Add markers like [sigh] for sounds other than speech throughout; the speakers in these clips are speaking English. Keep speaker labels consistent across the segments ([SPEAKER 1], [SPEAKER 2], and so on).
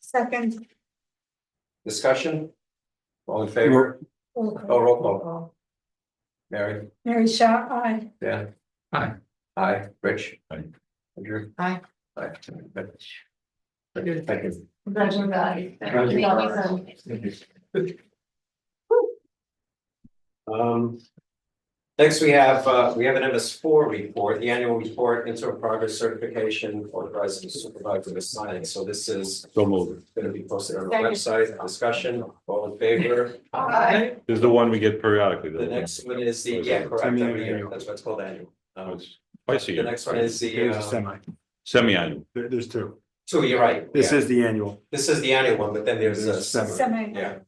[SPEAKER 1] Second.
[SPEAKER 2] Discussion? All in favor?
[SPEAKER 1] roll
[SPEAKER 2] Oh,
[SPEAKER 1] call.
[SPEAKER 2] roll call. Mary?
[SPEAKER 1] Mary Shaw, aye.
[SPEAKER 2] Dan?
[SPEAKER 3] Aye.
[SPEAKER 2] Aye. Rich?
[SPEAKER 3] Aye.
[SPEAKER 2] Andrew?
[SPEAKER 4] Aye.
[SPEAKER 2] Aye. Good, Thank you.
[SPEAKER 4] Congratulations.
[SPEAKER 2] Thank you. Um. Next, we have, uh, we have an MS four report, the annual report, interim progress certification authorizing the supervisor to sign. So this is
[SPEAKER 3] So moved.
[SPEAKER 2] gonna be posted on the website, discussion, all in favor?
[SPEAKER 4] Aye.
[SPEAKER 3] This is the one we get periodically.
[SPEAKER 2] The next one is the, yeah, correct, every year, that's what's called annual. Um,
[SPEAKER 3] It's Twice a
[SPEAKER 2] the
[SPEAKER 3] year,
[SPEAKER 2] next one is the,
[SPEAKER 5] There's a
[SPEAKER 2] uh,
[SPEAKER 5] semi,
[SPEAKER 3] semi-annual.
[SPEAKER 5] There- there's two.
[SPEAKER 2] two, you're right.
[SPEAKER 5] This
[SPEAKER 2] yeah.
[SPEAKER 5] is the annual.
[SPEAKER 2] This is the annual one, but then there's a
[SPEAKER 5] There's seven.
[SPEAKER 2] summer,
[SPEAKER 1] Semi,
[SPEAKER 2] yeah.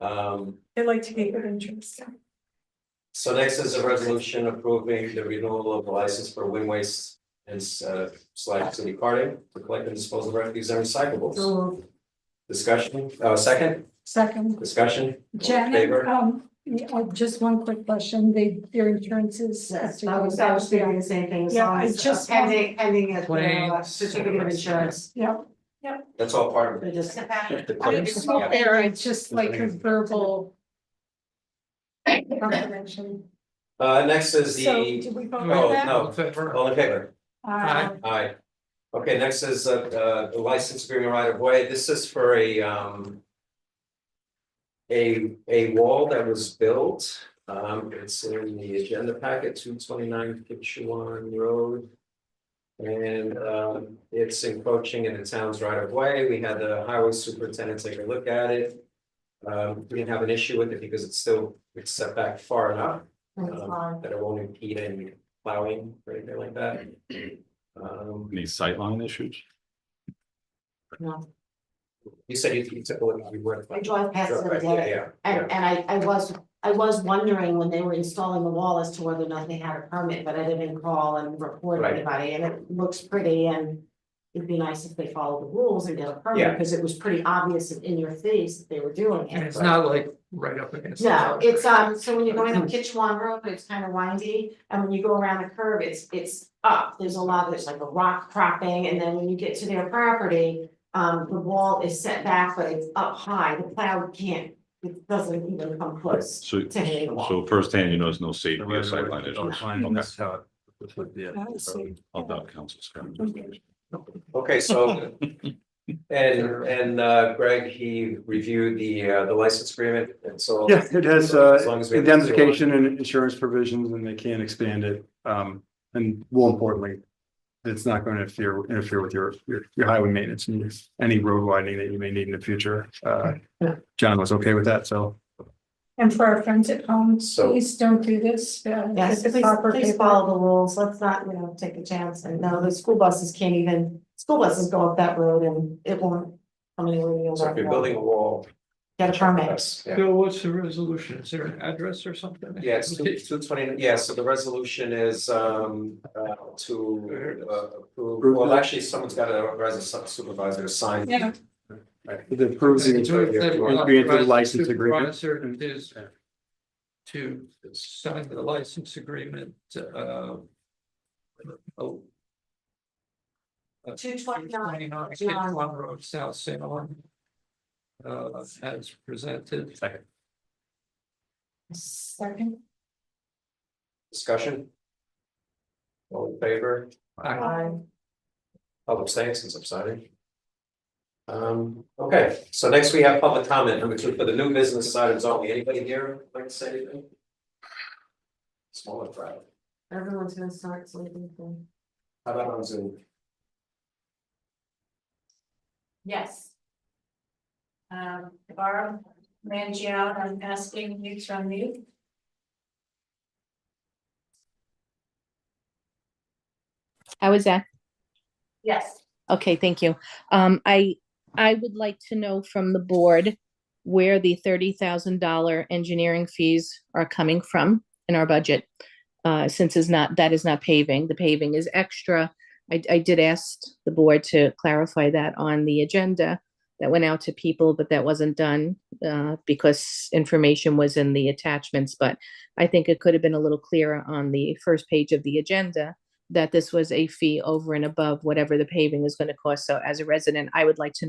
[SPEAKER 2] Um,
[SPEAKER 1] they like to keep it interesting.
[SPEAKER 2] so next is a resolution approving the renewal of the license for wind waste and uh slash city carding to collect and dispose of refuse and
[SPEAKER 4] Oh.
[SPEAKER 2] recyclables. Discussion, uh, second,
[SPEAKER 1] Second,
[SPEAKER 2] discussion. All in
[SPEAKER 1] Janet,
[SPEAKER 2] Favor,
[SPEAKER 1] um, yeah, uh, just one quick question, they, their insurance is.
[SPEAKER 4] I was, I was doing the same thing. as
[SPEAKER 1] Yeah,
[SPEAKER 4] long
[SPEAKER 1] I
[SPEAKER 4] as, uh,
[SPEAKER 1] just-
[SPEAKER 4] Pending, pending a uh,
[SPEAKER 3] Claims.
[SPEAKER 4] certificate of insurance.
[SPEAKER 1] Yeah,
[SPEAKER 2] that's all part of
[SPEAKER 4] They
[SPEAKER 2] it.
[SPEAKER 4] just.
[SPEAKER 2] The
[SPEAKER 1] I
[SPEAKER 2] claims,
[SPEAKER 1] it's
[SPEAKER 2] yeah.
[SPEAKER 1] not there, it's just like a verbal. [laughs] Confirmation.
[SPEAKER 2] Uh, next is
[SPEAKER 1] So,
[SPEAKER 2] the,
[SPEAKER 1] did we vote on
[SPEAKER 2] oh,
[SPEAKER 1] that?
[SPEAKER 2] no, all in favor?
[SPEAKER 1] Uh,
[SPEAKER 2] Aye. Okay, next is uh, uh, the license agreement right of way. This is for a, um. A, a wall that was built, um, it's in the agenda packet, two twenty-nine Kitchewan Road. And, um, it's encroaching in the town's right of way. We had the highway superintendent take a look at it. Um, we didn't have an issue with it because it's still, it's set back far enough um, that it won't impede any plowing or anything like that. Um,
[SPEAKER 3] Any sightline issues?
[SPEAKER 2] you said you you took a look, you were.
[SPEAKER 4] I drive past it every
[SPEAKER 2] Right, yeah,
[SPEAKER 4] day.
[SPEAKER 2] yeah, yeah.
[SPEAKER 4] And, and I, I was, I was wondering when they were installing the wall as to whether or not they had a permit, but I didn't call and report
[SPEAKER 2] Right.
[SPEAKER 4] anybody, and it looks pretty, and. It'd be nice if they followed the rules and get a permit,
[SPEAKER 2] Yeah.
[SPEAKER 4] because it was pretty obvious in your face that they were doing
[SPEAKER 6] And
[SPEAKER 4] it.
[SPEAKER 6] it's not like right up against. the
[SPEAKER 4] No,
[SPEAKER 6] road.
[SPEAKER 4] it's, um, so when you're going up Kitchewan Road, it's kind of windy, and when you go around the curve, it's, it's up, there's a lot, there's like a rock cropping, and then when you get to their property. Um, the wall is set back, but it's up high, the plow can't, it doesn't even come close
[SPEAKER 3] So,
[SPEAKER 4] to hitting the wall.
[SPEAKER 3] so firsthand, you know, there's no safety
[SPEAKER 5] The
[SPEAKER 3] or
[SPEAKER 5] right of way
[SPEAKER 3] sightline
[SPEAKER 5] is
[SPEAKER 3] issues.
[SPEAKER 5] outlined,
[SPEAKER 3] Okay.
[SPEAKER 5] that's how it- that's what the-
[SPEAKER 1] I see.
[SPEAKER 3] I'll doubt council's comment.
[SPEAKER 2] Okay,
[SPEAKER 5] [laughs]
[SPEAKER 2] so. And and uh, Greg, he reviewed the uh, the license agreement and so.
[SPEAKER 5] Yeah, it has
[SPEAKER 2] As
[SPEAKER 5] uh,
[SPEAKER 2] long as we have the-
[SPEAKER 5] indemnification and insurance provisions and they can expand it. Um, and more importantly, it's not going to interfere, interfere with your, your, your highway maintenance and your- any road widening that you may need in the future. Uh, John was okay with that, so.
[SPEAKER 1] and for our friends at home,
[SPEAKER 2] So-
[SPEAKER 1] please don't do this. uh,
[SPEAKER 4] Yes,
[SPEAKER 1] it's
[SPEAKER 4] please,
[SPEAKER 1] proper
[SPEAKER 4] please
[SPEAKER 1] paper.
[SPEAKER 4] follow the rules, let's not, you know, take a chance, and no, the school buses can't even, school buses go up that road and it won't. Come anywhere near
[SPEAKER 2] So
[SPEAKER 4] that
[SPEAKER 2] if you're
[SPEAKER 4] wall,
[SPEAKER 2] building a wall.
[SPEAKER 4] get a permit.
[SPEAKER 2] Yes, yeah.
[SPEAKER 6] Bill, what's the resolution? Is there an address or something?
[SPEAKER 2] Yeah, it's two
[SPEAKER 6] [laughs]
[SPEAKER 2] two twenty, yeah, so the resolution is um uh to uh approve, well, actually, someone's got to authorize a supervisor to sign.
[SPEAKER 1] Yeah.
[SPEAKER 5] It approves the Entry into the license agreement.
[SPEAKER 6] Supervisor is to sign the license agreement, uh. Oh.
[SPEAKER 4] Two twenty-nine,
[SPEAKER 6] 29
[SPEAKER 4] John.
[SPEAKER 6] Kitchewan Road, South Salem. Uh, as presented.
[SPEAKER 1] Second,
[SPEAKER 2] Discussion? All in favor?
[SPEAKER 6] I-
[SPEAKER 4] Aye.
[SPEAKER 2] I'll abstain since I'm signing. Um, okay, so next we have public comment, number two, for the new business items only, anybody here like to say anything? Smaller crowd,
[SPEAKER 4] Everyone's gonna start sleeping soon.
[SPEAKER 2] how about on Zoom?
[SPEAKER 7] Yes. Um, Barb, Mangione, I'm asking you to unmute.
[SPEAKER 8] How is that?
[SPEAKER 7] Yes.
[SPEAKER 8] Okay, thank you. Um, I, I would like to know from the board where the thirty thousand dollar engineering fees are coming from in our budget. Uh, since is not, that is not paving, the paving is extra. I, I did ask the board to clarify that on the agenda that went out to people, but that wasn't done, uh, because information was in the attachments, but I think it could have been a little clearer on the first page of the agenda that this was a fee over and above whatever the paving is going to cost. So as a resident, I would like to